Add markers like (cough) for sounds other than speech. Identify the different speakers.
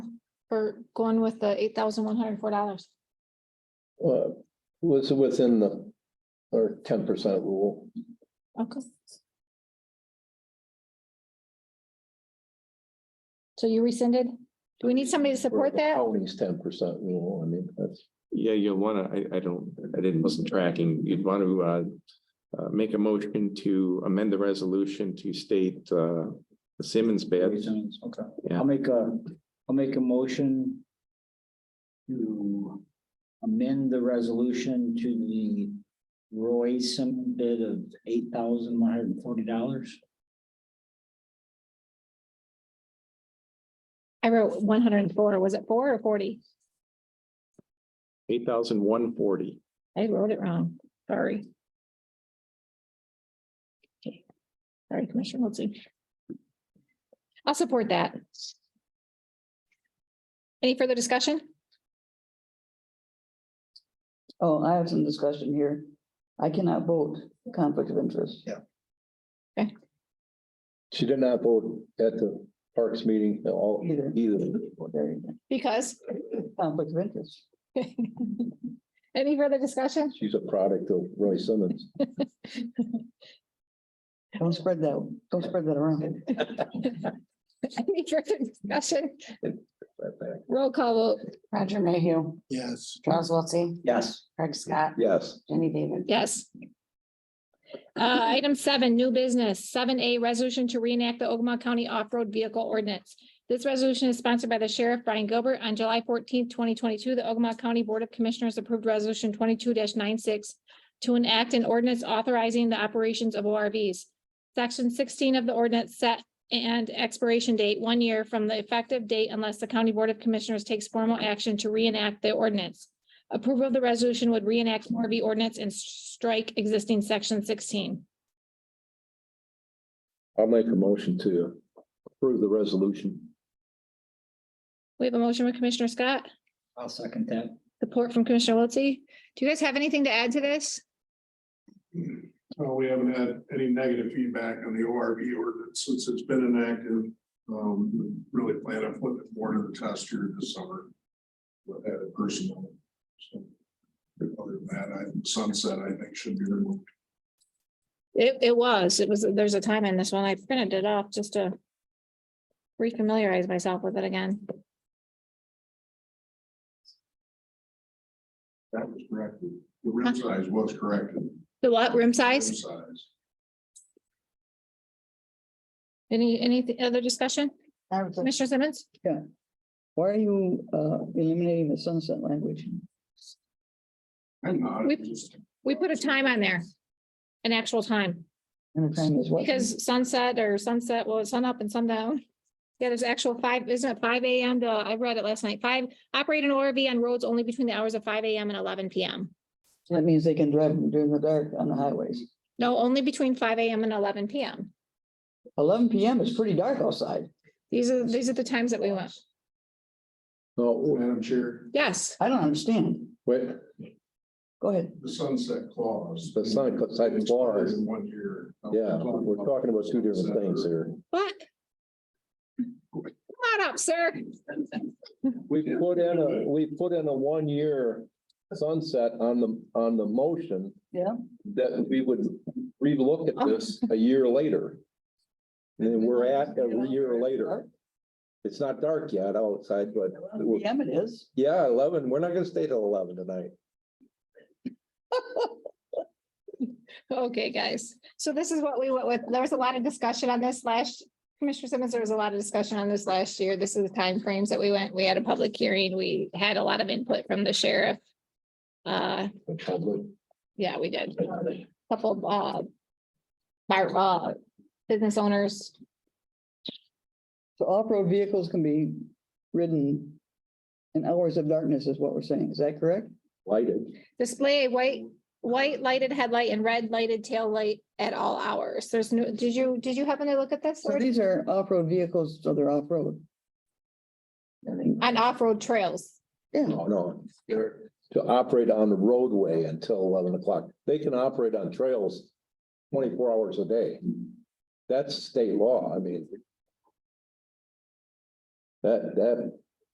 Speaker 1: for going with the eight thousand one hundred and four dollars.
Speaker 2: Uh, was within the, or ten percent rule.
Speaker 1: Okay. So you rescinded? Do we need somebody to support
Speaker 2: The
Speaker 1: that?
Speaker 2: County's ten percent rule, I mean, that's,
Speaker 3: Yeah, you'll wanna, I, I don't, I didn't, wasn't tracking. You'd want to, uh, uh, make a motion to amend the resolution to state, uh, the Simmons bid.
Speaker 4: Reasons, okay.
Speaker 3: Yeah.
Speaker 4: I'll make a, I'll make a motion to amend the resolution to the Roy Sim bid of eight thousand one hundred and forty dollars.
Speaker 1: I wrote one hundred and four. Was it four or forty?
Speaker 3: eight thousand one forty.
Speaker 1: I wrote it wrong. Sorry. Okay. Sorry, Commissioner Wiltie. I'll support that. Any further discussion?
Speaker 5: Oh, I have some discussion here. I cannot vote conflict of interest.
Speaker 2: she did not vote at the Parks meeting, all,
Speaker 5: Either.
Speaker 2: either.
Speaker 5: Well, there you
Speaker 1: Because, (laughs)
Speaker 5: go. Conflict of interest.
Speaker 1: any further discussion? (laughs)
Speaker 2: She's a product of Roy Simmons.
Speaker 5: Don't spread that, don't spread that around.
Speaker 1: Any further discussion?
Speaker 2: that fact.
Speaker 1: Roll call vote.
Speaker 6: Roger Mayhew,
Speaker 2: Yes.
Speaker 6: Charles Wiltie,
Speaker 4: Yes.
Speaker 6: Craig Scott,
Speaker 2: Yes.
Speaker 6: Jenny David.
Speaker 1: Yes. Uh, item seven, new business, seven A, resolution to reenact the Ogama County Off-Road Vehicle Ordinance. This resolution is sponsored by the Sheriff Brian Gilbert. On July fourteenth, twenty twenty-two, the Ogama County Board of Commissioners approved Resolution twenty-two 96 to enact an ordinance authorizing the operations of ORVs. Section sixteen of the ordinance set and expiration date one year from the effective date unless the County Board of Commissioners takes formal action to reenact the ordinance. Approval of the resolution would reenact Morbe ordinance and s- strike existing section sixteen.
Speaker 2: I'll make a motion to approve the resolution.
Speaker 1: We have a motion with Commissioner Scott,
Speaker 4: I'll second that.
Speaker 1: support from Commissioner Wiltie. Do you guys have anything to add to this?
Speaker 7: Uh, we haven't had any negative feedback on the ORV ordinance since it's been enacted. Um, we really plan on putting it more to the test here this summer. With that personal. so, Other than that, I, sunset, I think should be removed.
Speaker 1: It, it was, it was, there's a time in this one. I printed it off just to refamiliarize myself with it again.
Speaker 7: That was corrected. The rim size was corrected.
Speaker 1: The what, room
Speaker 7: Rim
Speaker 1: size?
Speaker 7: Size.
Speaker 1: Any, any other discussion?
Speaker 5: I was like,
Speaker 1: Commissioner Simmons?
Speaker 5: Why are you uh, eliminating the sunset language?
Speaker 7: I'm not,
Speaker 1: We-
Speaker 7: it's just,
Speaker 1: We put a time on there, an actual time,
Speaker 5: And the time is what?
Speaker 1: because sunset or sunset, well, it's sun up and sundown. Yeah, there's actual five, isn't it five AM to, I read it last night, five, operate an ORV on roads only between the hours of five AM and eleven PM.
Speaker 5: So That means they can drive during the dark on the highways.
Speaker 1: No, only between five AM and eleven PM.
Speaker 5: Eleven PM is pretty dark outside.
Speaker 1: These are, these are the times that we want.
Speaker 2: No,
Speaker 7: Madam Chair,
Speaker 1: Yes,
Speaker 5: I don't understand.
Speaker 2: wait,
Speaker 5: Go ahead.
Speaker 7: the sunset clause.
Speaker 2: The sunset clause.
Speaker 7: In one year.
Speaker 2: yeah, we're talking about two different things here.
Speaker 1: what? Come on up, sir.
Speaker 2: We put in a, we put in a one-year sunset on the, on the motion.
Speaker 5: Yeah.
Speaker 2: That we would relook at this a year later. And then we're at a year later. It's not dark yet outside, but
Speaker 5: Eleven PM it is.
Speaker 2: yeah, eleven, we're not gonna stay till eleven tonight.
Speaker 1: Okay, guys, so this is what we went with. There was a lot of discussion on this last, Commissioner Simmons, there was a lot of discussion on this last year. This is the timeframes that we went. We had a public hearing. We had a lot of input from the sheriff. Uh, yeah, we did. Couple of, uh, bar- uh, business owners,
Speaker 5: So off-road vehicles can be ridden in hours of darkness is what we're saying. Is that correct?
Speaker 2: Lighted,
Speaker 1: display a white, white lighted headlight and red lighted tail light at all hours. There's no, did you, did you happen to look at this?
Speaker 5: So these are off-road vehicles, so they're off-road. I mean,
Speaker 1: On off-road trails.
Speaker 5: Yeah,
Speaker 2: no, no, they're to operate on the roadway until eleven o'clock. They can operate on trails twenty-four hours a day. That's state law, I mean. That, that